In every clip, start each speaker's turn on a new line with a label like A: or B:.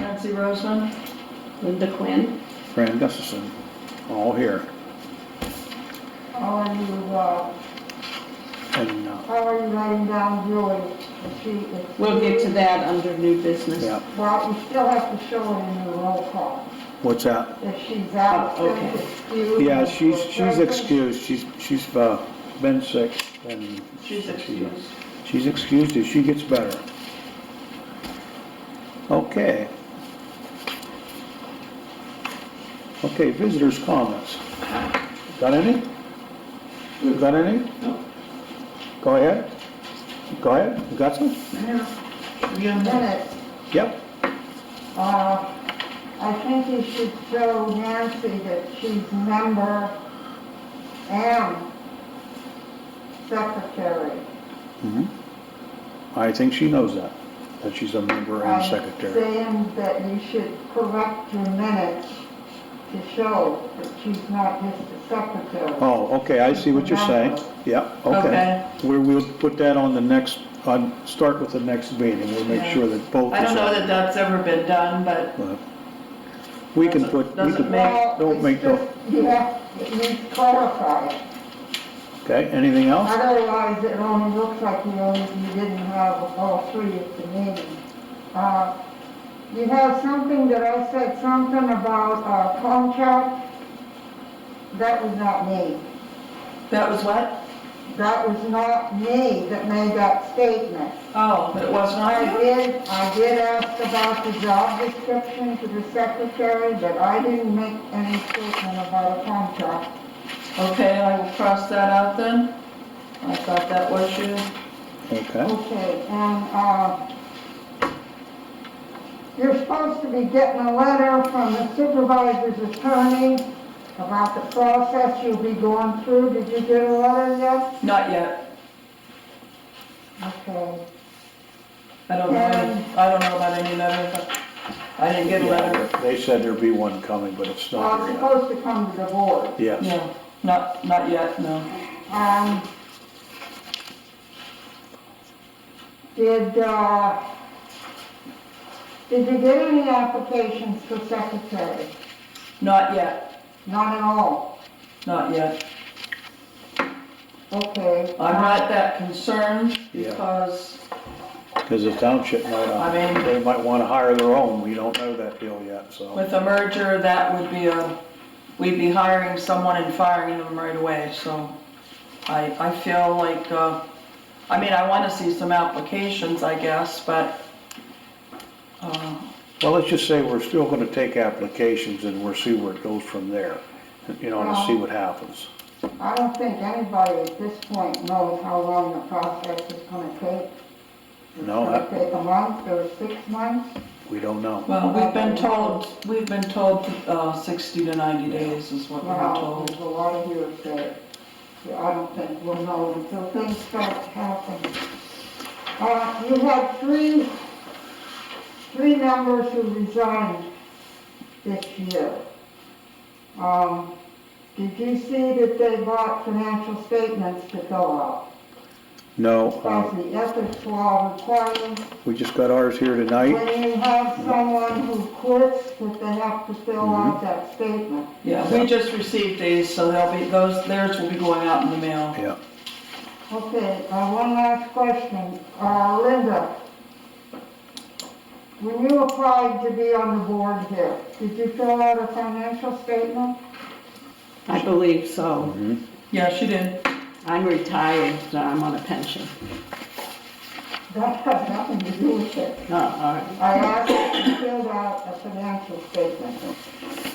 A: Nancy Roseman,
B: Linda Quinn,
C: Fran Gustafson, all here.
A: how are you, uh,
C: And, uh,
A: how are you writing down Julie? Is she, is she-
B: we'll get to that under new business.
C: yeah,
A: Well, you still have to show her in the roll call,
C: what's that?
A: if she's out,
B: Oh, okay.
A: if excused.
C: Yeah,
A: if
C: she's,
A: we're
C: she's
A: present.
C: excused, she's, she's, uh, been sick and.
B: She's excused.
C: She's excused if she gets better. Okay. Okay, visitors' comments. Got any? You Got any?
B: No.
C: Go ahead. Go ahead, you got some?
A: Minutes,
C: Yep,
A: uh, I think you should show Nancy that she's member and secretary.
C: Mm-hmm. I think she knows that, that she's a member and
A: I'm
C: secretary.
A: Saying that you should correct your minutes to show that she's not just a secretary.
C: Oh, okay, I see what you're saying. Yep, okay.
D: Okay.
C: We, we'll put that on the next, on, start with the next meeting, we'll make
D: Yeah.
C: sure that both.
D: I don't
C: is
D: know
C: on.
D: that that's ever been done, but
C: Well, We can put, we
D: Doesn't
C: can,
D: make-
A: Well,
C: don't
A: it's
C: make no-
A: just- You have, it needs clarified.
C: okay, anything else?
A: Otherwise, it only looks like you only, you didn't have all three at the meeting. Uh, You have something that I said something about a contract. That was not me.
D: that was what?
A: That was not me that made that statement.
D: Oh, but it wasn't
A: I
D: I?
A: did, I did ask about the job description to the secretary, but I didn't make any statement about a contract.
D: Okay, I will cross that out then. I thought that was you.
C: Okay,
A: Okay, and, uh, you're supposed to be getting a letter from the supervisor's attorney about the process you'll be going through. Did you get a letter yet?
D: Not yet.
A: Okay.
D: I don't know, any- I don't know about any letter, but I didn't get a letter.
C: Yeah, they said there'd be one coming, but it's
A: Well,
C: not
A: it's
C: here yet.
A: supposed to come to the board.
C: Yes,
D: No, not, not yet, no.
A: Um, did, uh, did you get any applications for secretary?
D: Not yet,
A: Not at all,
D: not yet.
A: okay.
D: I'm not that concerned
C: Yeah.
D: because,
C: because the township might, uh,
D: I mean-
C: they might want to hire their own, we don't know that deal yet, so.
D: with a merger, that would be a, we'd be hiring someone and firing them right away, so I, I feel like, uh, I mean, I wanna see some applications, I guess, but, uh,
C: Well, let's just say we're still going to take applications and we'll see where it goes from there, you know, to see what happens.
A: I don't think anybody at this point knows how long the process is gonna take.
C: No,
A: It's gonna
C: I-
A: take a month or six months?
C: we don't know.
D: well, we've been told, we've been told, uh, sixty to ninety days is what we were
A: Well,
D: told.
A: there's a lot of hearsay. I don't think we'll know until things start happening. Uh, you had three, three members who resigned this year. Um, did you see that they brought financial statements to fill out?
C: No,
A: As
C: uh,
A: the ethics law requires,
C: we just got ours here tonight.
A: when you have someone who quits, that they have to fill
C: Mm-hmm.
A: out that statement.
D: Yeah, we just received these, so they'll be, those, theirs will be going out in the mail.
C: Yeah,
A: Okay, uh, one last question. Uh, Linda, when you applied to be on the board here, did you fill out a financial statement?
B: I believe so.
D: Yeah, she did.
B: I'm retired, so I'm on a pension.
A: That has nothing to do with it.
B: Oh, all right.
A: I asked if you filled out a financial statement.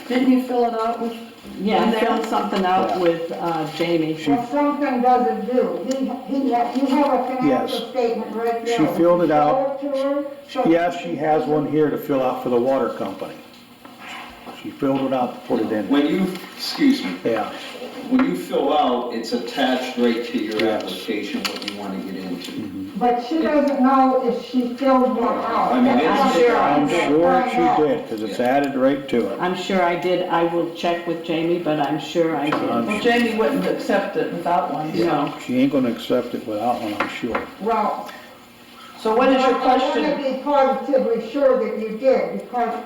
D: Didn't you fill it out with?
B: Yeah, I
D: And
B: filled
D: then-
B: something out with uh, Jamie.
A: Well, something doesn't do. He, he, ha- you have a
C: Yes.
A: financial statement right
C: She
A: there.
C: filled it out.
A: Show it to her. so-
C: yes, she has one here to fill out for the water company. She filled it out, to put it in,
E: When you, excuse me,
C: yeah.
E: when you fill out, it's attached right to your
C: Yes. Mm-hmm.
E: application, what you want to get into.
A: But she doesn't know if she filled one out.
E: I mean, it's-
A: That's what
C: I'm
A: I'm trying to
C: sure
A: find out.
C: she did, because it's added right to it.
B: I'm sure I did. I will check with Jamie, but I'm sure I
C: John.
B: did.
D: Well, Jamie wouldn't accept it without one, so.
B: No.
C: She ain't gonna accept it without one, I'm sure.
A: Well.
D: So what is your
A: I
D: question?
A: want to be positively sure that you did, because